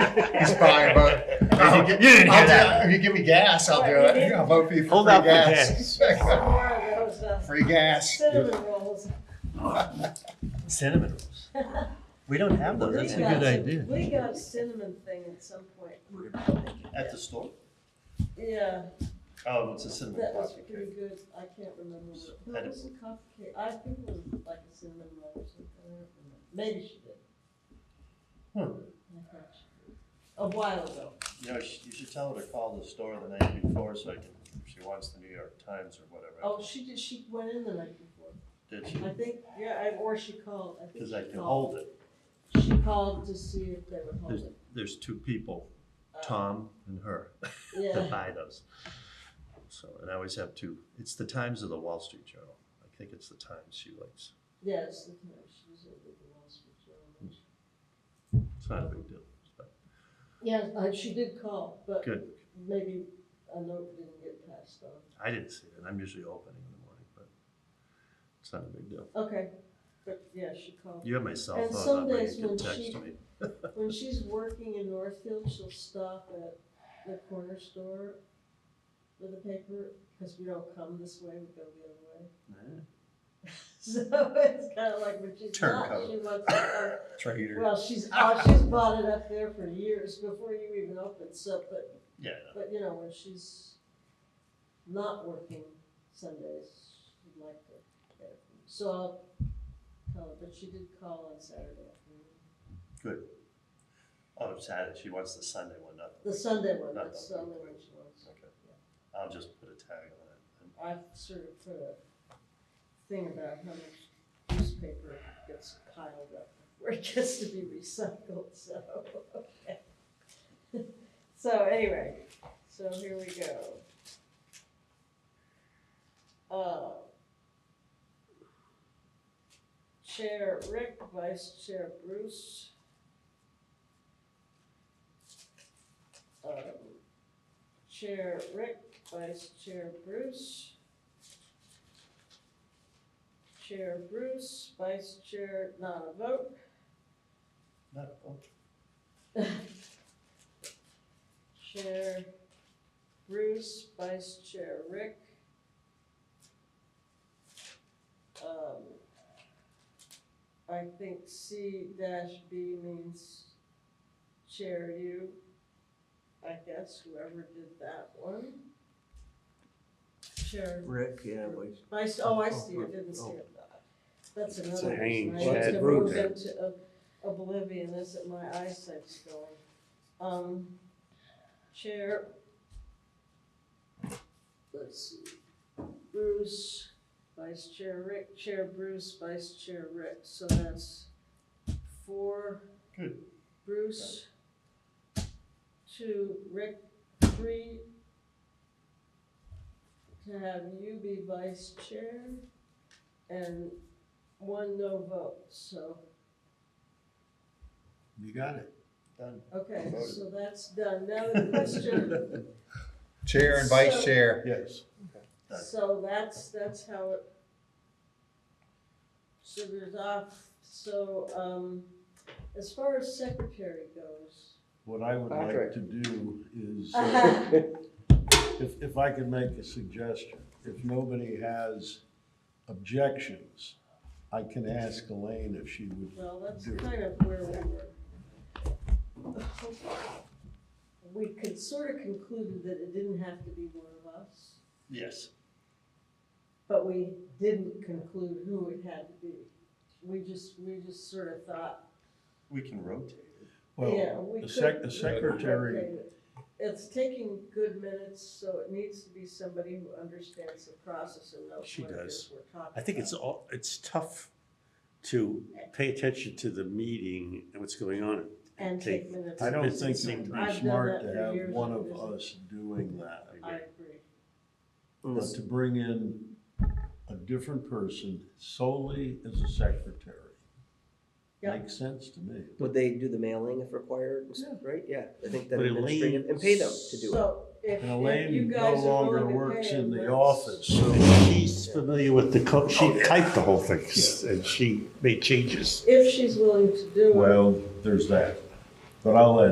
It's fine, but. You didn't hear Oh. I'll do- that. If you give me gas, I'll do it. I'll vote for you for Hold out free for gas. Some more of those uh, Free gas. cinnamon rolls. Cinnamon rolls. We don't have Oh, those. That's a We got good some- idea. We got a cinnamon thing at some point. At the store? Yeah, Oh, it's a that cinnamon was coffee pretty cake. good. I can't remember. what- No, I it was a coffee cake. I think it was like a cinnamon roll or something. I don't remember. Maybe she did. Hmm. I thought she did. A while ago. You know, sh- you should tell her to call the store the night before so I can, if she wants the New York Times or whatever. Oh, she did, she went in the night before. Did she? I think, yeah, I- or she called. I think Because she I can called. hold it. She called to see if they would hold There's, it. there's two people, Uh, Tom and her, that Yeah, buy those. So, and I always have two. It's the Times or the Wall Street Journal. I think it's the Times she likes. yes, the time she was at the Wall Street Journal. It's not a big deal. but Yes, uh, she did call, but Good. maybe a note didn't get passed on. I didn't see it. I'm usually opening in the morning, but it's not a big deal. Okay, but yeah, she called. You have my cell And phone some number. days You when can text she- me. When she's working in Northfield, she'll stop at the corner store with the paper, because we don't come this way, we go the other way. Yeah. So it's kind of like when she's not, Turncoat. she wants to come Traitor. Well, she's, oh, she's bought it up there for years before you even opened, so, but, Yeah. but you know, when she's not working Sundays, she'd like to. get it. So I'll call her, but she did call on Saturday afternoon, Oh, Saturday. She wants the Sunday one, not the the weekend. Sunday one, Not that's the the only one weekend. she wants. Okay. I'll just put a tag on it. And I sort of put a thing about how much newspaper gets piled up where it gets to be recycled, so. okay. So anyway, so here we go. Uh, Chair Rick, Vice Chair Bruce. Um, Chair Rick, Vice Chair Bruce. Chair Bruce, Vice Chair not a vote. Not a vote. Chair Bruce, Vice Chair Rick. Um, I think C dash B means Chair you, I guess, whoever did that one. Chair Rick, yeah, oh. Vice, oh, I see, it didn't see it. That's It's a another hanging reason, I just chad have roof. moved into ob- oblivion, is that my eyesight's going. Um, Chair. Let's see, Bruce, Vice Chair Rick, Chair Bruce, Vice Chair Rick, so that's four. Good. Bruce. Two, Rick, three. To have you be vice chair and one no vote, so, You got it. Done. okay, so that's done. Now the question, Chair and So- vice chair. Yes. so that's, that's how it sugars off. So, um, as far as secretary goes, What I would like Patrick. to do is, uh, if, if I could make a suggestion, if nobody has objections, I can ask Elaine if she would. Well, that's do it. kind of where we were. We could sort of concluded that it didn't have to be one of us, Yes. but we didn't conclude who it had to be. We just, we just sort of thought, We can rotate it. Well, yeah, we the could. sec- the secretary, Okay. It's taking good minutes, so it needs to be somebody who understands the process and knows She what it is we're talking about. I think it's all, it's tough to pay attention to the meeting and what's going on. And take minutes. I don't It's think same it would time. I've be done smart that to for years have one and of years. us doing that. I agree. But to bring in a different person solely as a secretary. Yeah. Makes sense to me. Would they do the mailing if required, and stuff, right? Yeah, I think that But administrative, Elaine- and pay them to do it. So if, And if you Elaine no guys are longer willing to works pay in the them, office, so She's familiar with the code. Oh, She typed the whole thing and she made changes. If she's willing to do it. Well, there's that. But I'll let